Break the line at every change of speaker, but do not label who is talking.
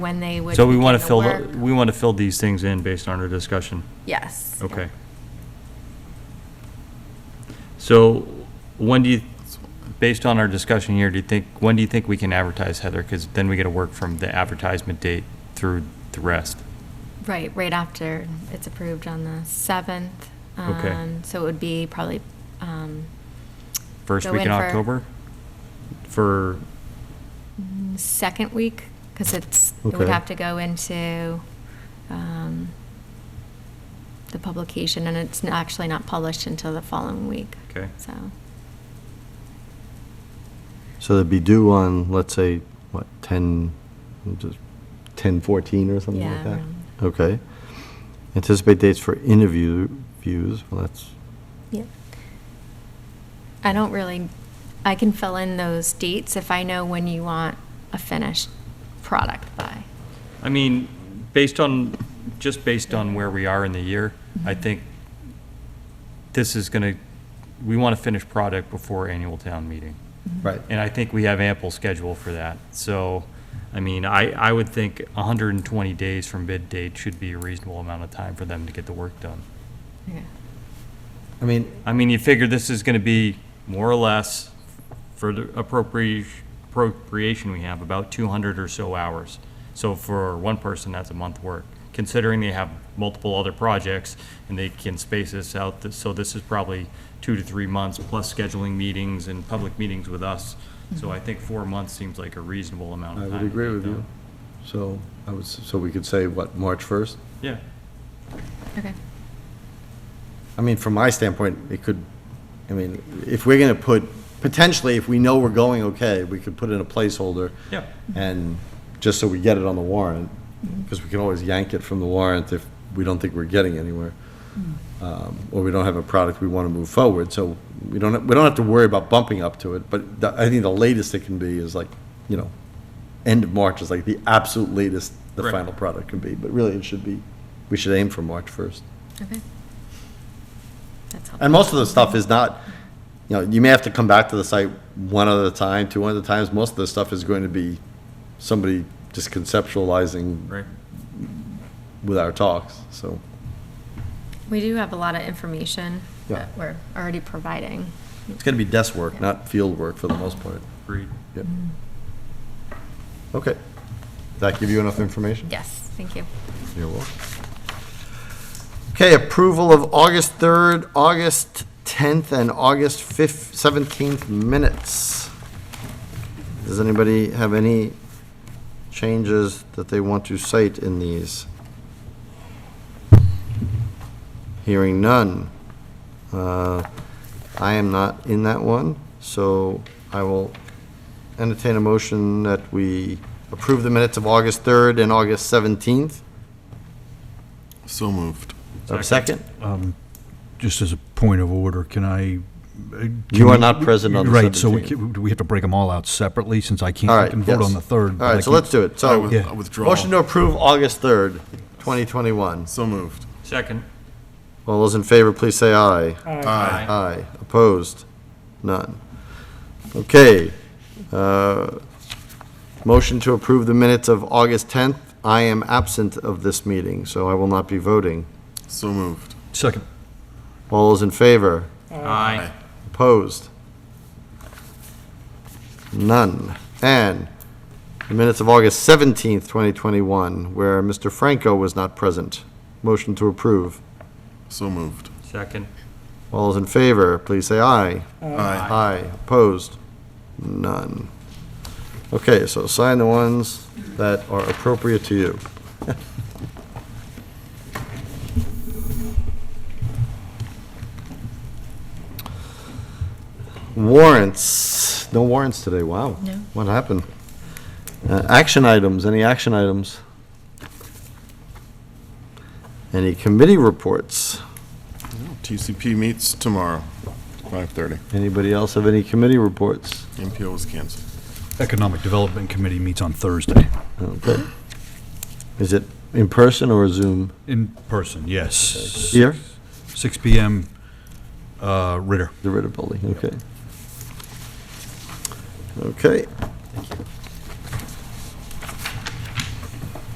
when they would.
So we want to
begin the
fill,
work.
we want to fill these things in based on our discussion.
Yes.
Okay. So when do you, based on our discussion here, do you think, when do you think we can advertise, Heather? Because then we got to work from the advertisement date through the rest.
Right, right after it's approved on the 7th.
Okay.
Um, So it would be probably, um,
First
Go
week in
in for-
October? For,
second week, because it's, it would
Okay.
have to go into um, the publication, and it's n- actually not published until the following week.
Okay.
So,
So they'd be due on, let's say, what, 10, just 10, 14 or something
Yeah,
like that?
around.
Okay. Anticipate dates for interview, views, well, that's,
yeah. I don't really, I can fill in those dates if I know when you want a finished product by.
I mean, based on, just based on where we are in the year, I think this is going to, we want to finish product before annual town meeting.
right.
And I think we have ample schedule for that. So, I mean, I, I would think 120 days from bid date should be a reasonable amount of time for them to get the work done.
Yeah.
I mean,
I mean, you figure this is going to be more or less for the appropriation, appropriation we have, about 200 or so hours. So for one person, that's a month work, considering they have multiple other projects and they can space this out. th- So this is probably two to three months, plus scheduling meetings and public meetings with us. So I think four months seems like a reasonable amount
I
of time.
would
to
agree
get
with you.
done.
So I was, so we could say, what, March 1st?
Yeah.
Okay.
I mean, from my standpoint, it could, I mean, if we're going to put, potentially, if we know we're going okay, we could put in a placeholder.
Yeah.
And, just so we get it on the warrant, because we can always yank it from the warrant if we don't think we're getting anywhere. Um, Or we don't have a product we want to move forward, so we don't, we don't have to worry about bumping up to it. But the- I think the latest it can be is like, you know, end of March is like the absolute latest the
Right.
final product can be. But really, it should be, we should aim for March 1st.
Okay. That's helpful.
And most of the stuff is not, you know, you may have to come back to the site one other time, two other times. Most of the stuff is going to be somebody just conceptualizing
Right.
with our talks, so.
We do have a lot of information
Yeah.
that we're already providing.
It's going to be desk work, not field work for the most part.
Agreed.
Yep. Okay. Does that give you enough information?
Yes, thank you.
You're welcome. Okay, approval of August 3rd, August 10th, and August 5th, 17th minutes. Does anybody have any changes that they want to cite in these? Hearing none. Uh, I am not in that one, so I will entertain a motion that we approve the minutes of August 3rd and August 17th.
So moved.
A second?
Just as a point of order, can I? uh, can
You are
we-
not present on the
Right, so we
17th.
can- do we have to break them all out separately, since I can't,
All
I
right.
can vote
yes.
on the third. but
All
I
right, so
can't-
let's do it.
I
So,
with-
Yeah.
I withdraw.
motion to approve August 3rd, 2021.
So moved.
Second.
All those in favor, please say aye.
Aye.
Aye. Opposed? None. Okay. uh, Motion to approve the minutes of August 10th. I am absent of this meeting, so I will not be voting.
So moved.
Second,
All those in favor?
Aye.
Opposed? None. And the minutes of August 17th, 2021, where Mr. Franco was not present. Motion to approve.
So moved.
Second.
All those in favor, please say aye.
Aye.
Aye. Opposed? None. Okay, so sign the ones that are appropriate to you. Warrants, no warrants today, wow.
No.
What happened? Uh, Action items, any action items? Any committee reports?
TCP meets tomorrow, 5:30.
Anybody else have any committee reports?
MPO is canceled.
Economic Development Committee meets on Thursday,
Okay. Is it in person or Zoom?
in person, yes.
Here?
Six PM, uh, Ritter.
The Ritter Building, okay. Okay.